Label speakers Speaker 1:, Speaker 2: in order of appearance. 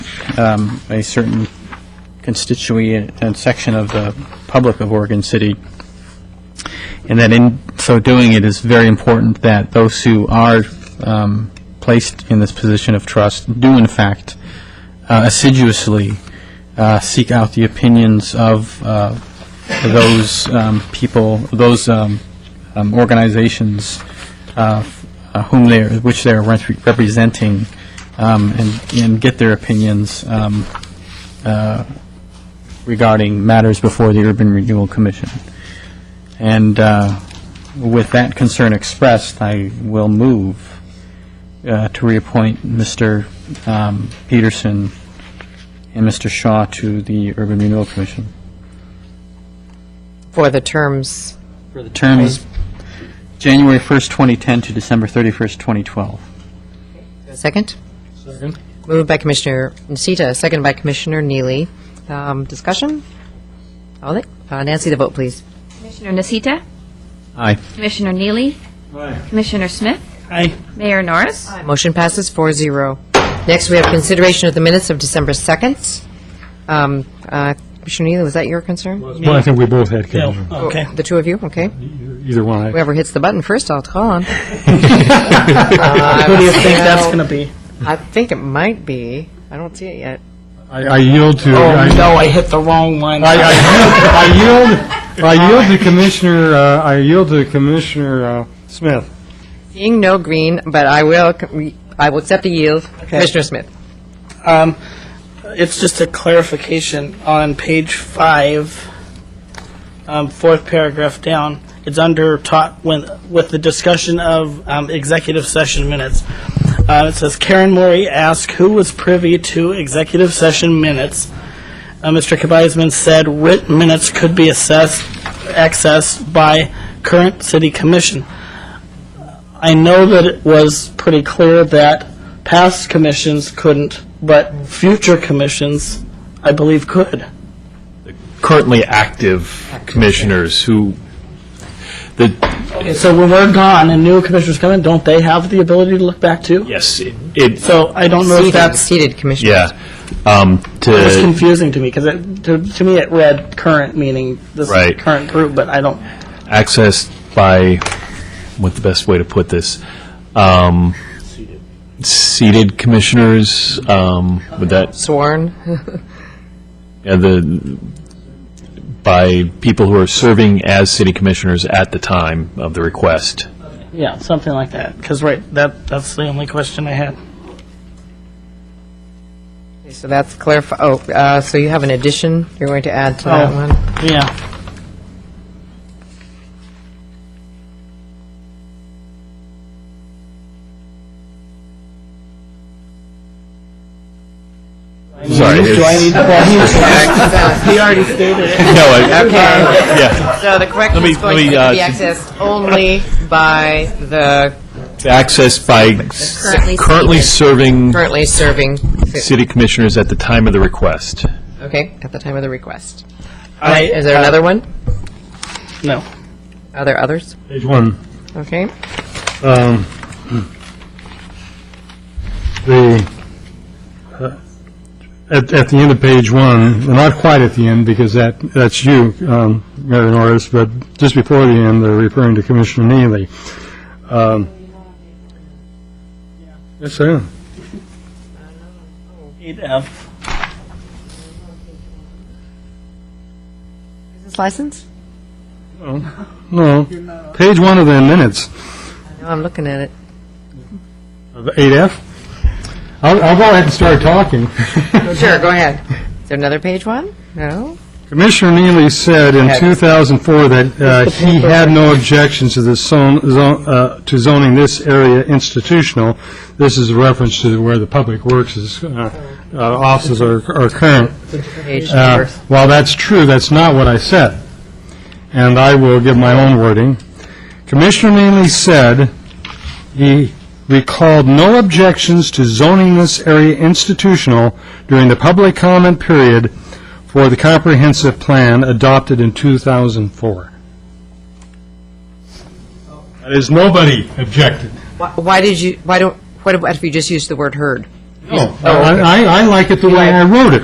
Speaker 1: um, a certain constituent and section of the public of Oregon City. And that in so doing, it is very important that those who are um, placed in this position of trust do in fact uh, assiduously uh, seek out the opinions of uh, those um, people, those um, um, organizations uh, uh, whom they, which they're representing, um, and and get their opinions um, uh, regarding matters before the Urban Renewal Commission. And uh, with that concern expressed, I will move uh, to reappoint Mr. um, Peterson and Mr. Shaw to the Urban Renewal Commission.
Speaker 2: for the terms,
Speaker 1: For the terms January 1st, 2010 to December 31st, 2012.
Speaker 2: second? Second. Moved by Commissioner Nocita, second by Commissioner Neely. Um, Discussion? All right, Uh, Nancy, the vote, please.
Speaker 3: Commissioner Nasita,
Speaker 1: Aye.
Speaker 3: Commissioner Neely, Commissioner Smith,
Speaker 4: Aye.
Speaker 3: Mayor Norris.
Speaker 2: Motion passes 4-0. Next, we have consideration of the minutes of December 2nd. Um, uh, Commissioner Neely, was that your concern? Oh,
Speaker 5: Well, I think we both had,
Speaker 4: No,
Speaker 5: Kevin.
Speaker 4: okay.
Speaker 2: The two of you, okay.
Speaker 5: either one. I-
Speaker 2: Whoever hits the button first, I'll call on.
Speaker 4: Who do you think that's going to be?
Speaker 2: I think it might be, I don't see it yet.
Speaker 5: I I yield to,
Speaker 4: Oh,
Speaker 5: I
Speaker 4: no, I hit the wrong one.
Speaker 5: I- I yield, I yield- I yield to Commissioner, uh, I yield to Commissioner uh, Smith.
Speaker 2: Seeing no green, but I will, c- I will accept the yield. Commissioner Smith.
Speaker 4: Um, It's just a clarification on page five, um, fourth paragraph down. It's under taught when, with the discussion of um, executive session minutes. Uh, It says Karen Mori asked who was privy to executive session minutes. Uh, Mr. Kabizman said written minutes could be assessed, accessed by current city commission. I know that it was pretty clear that past commissions couldn't, but future commissions, I believe, could.
Speaker 6: currently active commissioners who, the,
Speaker 4: Okay, so when we're gone and new commissioners come in, don't they have the ability to look back too?
Speaker 6: yes, it- it,
Speaker 4: So I don't know if that's,
Speaker 2: Seated Commissioner.
Speaker 6: yeah, um,
Speaker 4: it's
Speaker 6: to,
Speaker 4: confusing to me, because it, to, to me, it read current, meaning this
Speaker 6: Right.
Speaker 4: current group, but I don't,
Speaker 6: accessed by, what's the best way to put this? Um, Seated commissioners, um, would that,
Speaker 2: Sworn.
Speaker 6: yeah, the, by people who are serving as city commissioners at the time of the request.
Speaker 4: yeah, something like that, because, right, that, that's the only question I had.
Speaker 2: So that's clarify, oh, uh, so you have an addition you're going to add to that
Speaker 4: Oh.
Speaker 2: one?
Speaker 4: Yeah,
Speaker 6: Sorry.
Speaker 4: do I
Speaker 6: it's-
Speaker 4: need, well, he, he already stated it.
Speaker 6: No, I- yeah.
Speaker 2: So the correction
Speaker 6: Let me-
Speaker 2: is going
Speaker 6: let
Speaker 2: to
Speaker 6: me,
Speaker 2: be
Speaker 6: uh,
Speaker 2: accessed only by the
Speaker 6: Accessed by s- currently serving
Speaker 2: currently serving,
Speaker 6: city commissioners at the time of the request.
Speaker 2: okay, at the time of the request.
Speaker 4: I-
Speaker 2: Is there another one?
Speaker 4: No.
Speaker 2: Are there others?
Speaker 5: Page one.
Speaker 2: Okay.
Speaker 5: Um, The, uh, at, at the end of page one, well, not quite at the end, because that, that's you, um, Mayor Norris, but just before the end, they're referring to Commissioner Neely. Um, Yes, sir.
Speaker 4: Eight F.
Speaker 2: Is this license?
Speaker 5: No, page one of the minutes,
Speaker 2: No, I'm looking at it.
Speaker 5: of 8F. I'll, I'll go ahead and start talking.
Speaker 2: Sure, go ahead. Is there another page one? No?
Speaker 5: Commissioner Neely said in 2004 that uh, he had no objections to the zone, zone- uh, to zoning this area institutional. This is a reference to where the public works is, uh, uh, offices are are current.
Speaker 2: Page
Speaker 5: Uh,
Speaker 2: number.
Speaker 5: While that's true, that's not what I said, and I will give my own wording. Commissioner Neely said he recalled no objections to zoning this area institutional during the public comment period for the comprehensive plan adopted in 2004. That is, nobody objected.
Speaker 2: Why- Why did you, why don't, what if- what if you just used the word heard?
Speaker 5: No, I, I- I like it the way I wrote it.